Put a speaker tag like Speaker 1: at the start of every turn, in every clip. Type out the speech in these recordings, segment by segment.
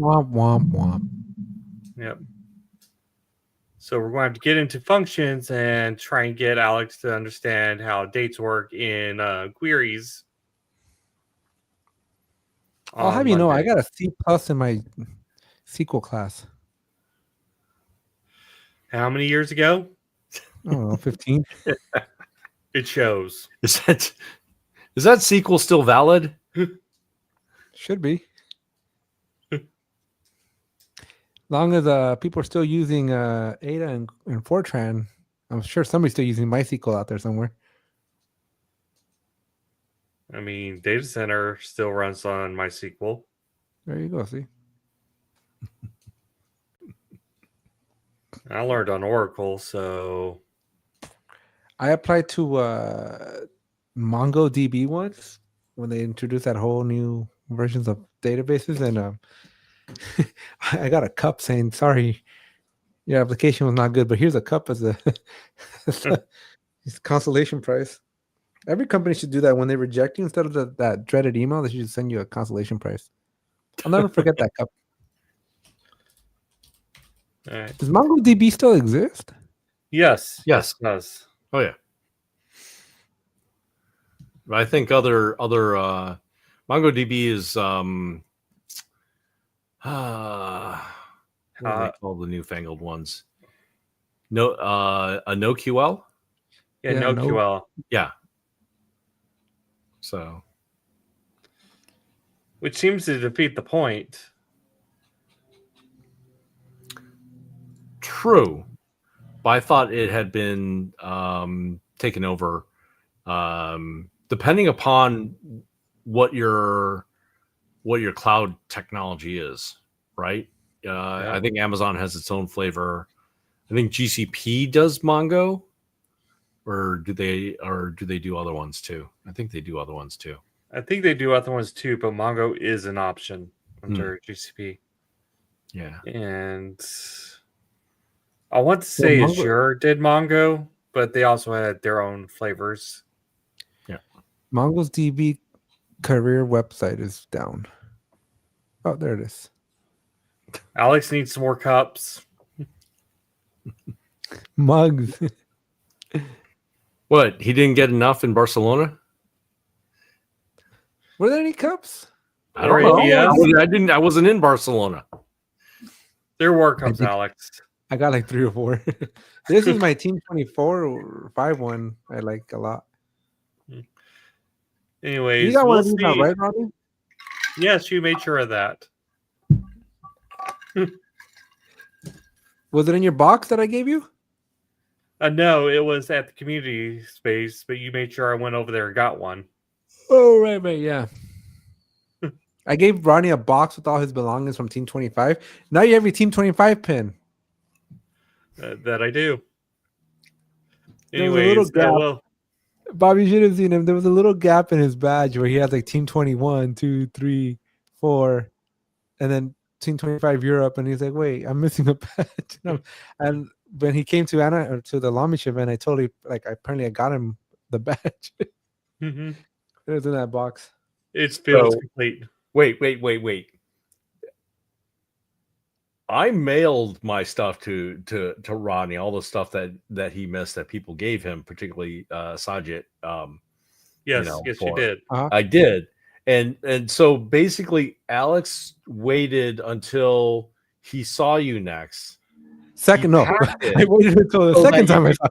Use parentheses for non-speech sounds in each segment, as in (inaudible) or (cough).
Speaker 1: Womp womp womp.
Speaker 2: Yep. So we're going to have to get into functions and try and get Alex to understand how dates work in uh, queries.
Speaker 1: I'll
Speaker 2: on
Speaker 1: have Oh, you know, I
Speaker 2: Monday.
Speaker 1: got a C plus in my SQL class.
Speaker 2: how many years ago?
Speaker 1: I don't know, (laughs) fifteen.
Speaker 2: It shows.
Speaker 3: Is that is that sequel still valid?
Speaker 1: Should (laughs) be. Long as uh, people are still using uh, Ada and, and Fortran, I'm sure somebody's still using MySQL out there somewhere.
Speaker 2: I mean, data center still runs on MySQL.
Speaker 1: There you go. See,
Speaker 2: I learned on Oracle, so
Speaker 1: I applied to uh, MongoDB once when they introduced that whole new versions of databases, and um, (laughs) I got a cup saying, "Sorry, your application was not good, but here's a cup as a, (laughs) as a- it's consolation price." Every company should do that when they reject you. Instead of the, that dreaded email, they should just send you a consolation price. I'll never forget that cup.
Speaker 2: all right.
Speaker 1: Does MongoDB still exist?
Speaker 2: uh, yes,
Speaker 3: Yes.
Speaker 2: yes.
Speaker 3: Oh yeah. I think other other uh MongoDB is um uh, what do
Speaker 2: Uh,
Speaker 3: they call the newfangled ones? No uh a NoQL?
Speaker 2: Yeah,
Speaker 1: Yeah,
Speaker 2: no,
Speaker 1: no.
Speaker 2: QL,
Speaker 3: So
Speaker 2: which seems to defeat the point.
Speaker 3: True, but I thought it had been um, taken over. Um, depending upon what your what your cloud technology is, right? Uh,
Speaker 2: Yeah.
Speaker 3: I think Amazon has its own flavor. I think GCP does Mongo, or do they? Or do they do other ones too? I think they do other ones too.
Speaker 2: I think they do other ones too, but Mongo is an option
Speaker 3: Hmm.
Speaker 2: under GCP.
Speaker 3: Yeah.
Speaker 2: and I want to say
Speaker 1: Mongo-
Speaker 2: Azure did Mongo, but they also had their own flavors.
Speaker 1: MongoDB career website is down. Oh, there it is.
Speaker 2: Alex needs some more cups.
Speaker 1: Mugs. (laughs)
Speaker 3: What he didn't get enough in Barcelona?
Speaker 1: Were there any cups?
Speaker 3: I don't
Speaker 2: Or
Speaker 3: know.
Speaker 2: ABS?
Speaker 3: I wasn't- I didn't. I wasn't in Barcelona.
Speaker 2: There were cups,
Speaker 1: think-
Speaker 2: Alex.
Speaker 1: I got like three or four. (laughs) this is my team 24 or 5 1. I like a lot.
Speaker 2: Anyways,
Speaker 1: You got one
Speaker 2: we'll
Speaker 1: of these now,
Speaker 2: see.
Speaker 1: right, Robbie?
Speaker 2: Yes, you made sure of that.
Speaker 1: Was it in your box that I gave you?
Speaker 2: Uh, no, it was at the community space, but you made sure I went over there and got one.
Speaker 1: Oh, right, right. Yeah. (laughs) I gave Ronnie a box with all his belongings from Team 25. Now you have your Team 25 pin.
Speaker 2: Uh, that I do.
Speaker 1: There was a little
Speaker 2: Anyways, uh,
Speaker 1: gap.
Speaker 2: well,
Speaker 1: Bobby should have seen him. There was a little gap in his badge where he had like Team 21, 2, 3, 4, and then Team 25 Europe. And he's like, wait, I'm missing a (laughs) badge. And, I'm- and when he came to Anna or to the Lamish event, I totally like apparently I got him the (laughs) badge. it
Speaker 2: mhm,
Speaker 1: was in that box.
Speaker 2: it's feels
Speaker 3: So-
Speaker 2: complete.
Speaker 3: Wait, wait, wait, wait. I mailed my stuff to to to Rodney, all the stuff that that he missed that people gave him, particularly uh Sajit. Um
Speaker 2: Yes,
Speaker 3: know,
Speaker 2: yes, you
Speaker 3: for-
Speaker 2: did.
Speaker 3: I did. And and so basically Alex waited until he saw you next. He
Speaker 1: Second, no. (laughs)
Speaker 3: packed it
Speaker 1: I waited until the
Speaker 3: so that
Speaker 1: second
Speaker 3: you
Speaker 1: time I
Speaker 3: could-
Speaker 1: saw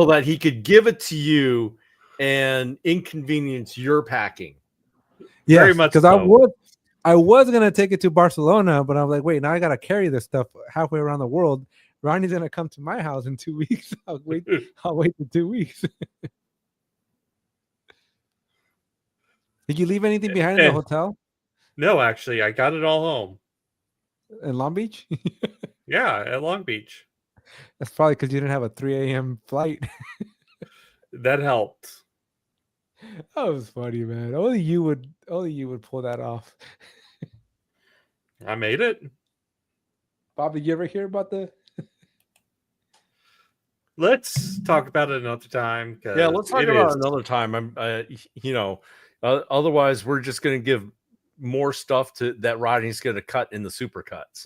Speaker 3: so that he could give it to you and inconvenience your packing.
Speaker 1: Yeah,
Speaker 2: Very much
Speaker 1: because I
Speaker 2: so.
Speaker 1: was I was gonna take it to Barcelona, but I'm like, wait, now I gotta carry this stuff halfway around the world. Ronnie's gonna come to my house in two (laughs) weeks. I'll wait. I'll wait for two weeks. (laughs) Did you leave anything behind in the
Speaker 2: eh.
Speaker 1: hotel
Speaker 2: No, actually, I got it all home.
Speaker 1: in Long Beach? (laughs)
Speaker 2: Yeah, at Long Beach.
Speaker 1: That's probably because you didn't have a 3 a.m. flight.
Speaker 2: That helped.
Speaker 1: that was funny, man. Only you would. Only you would pull that off.
Speaker 2: I made it.
Speaker 1: Bob, did you ever hear about the?
Speaker 2: Let's talk about it another time.
Speaker 3: yeah
Speaker 2: 'cause
Speaker 3: let's talk
Speaker 2: it
Speaker 3: about
Speaker 2: is-
Speaker 3: it another time i'm uh, y- you know uh, otherwise we're just going to give more stuff to that Rodney's going to cut in the supercuts.